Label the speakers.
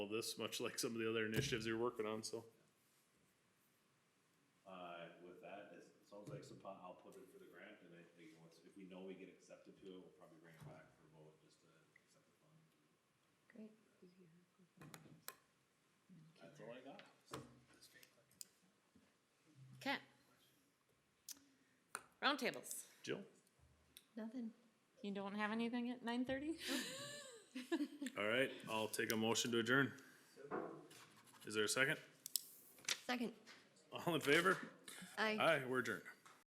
Speaker 1: this, much like some of the other initiatives you're working on, so.
Speaker 2: Uh, with that, it sounds like some po- I'll put it for the grant, and I think once, if we know we get accepted to it, we'll probably bring it back for vote, just to accept the fund.
Speaker 3: Great.
Speaker 2: That's all I got.
Speaker 3: Okay. Roundtables.
Speaker 1: Jill?
Speaker 4: Nothing.
Speaker 3: You don't have anything at nine thirty?
Speaker 1: All right, I'll take a motion to adjourn. Is there a second?
Speaker 4: Second.
Speaker 1: All in favor?
Speaker 4: Aye.
Speaker 1: Aye, we're adjourned.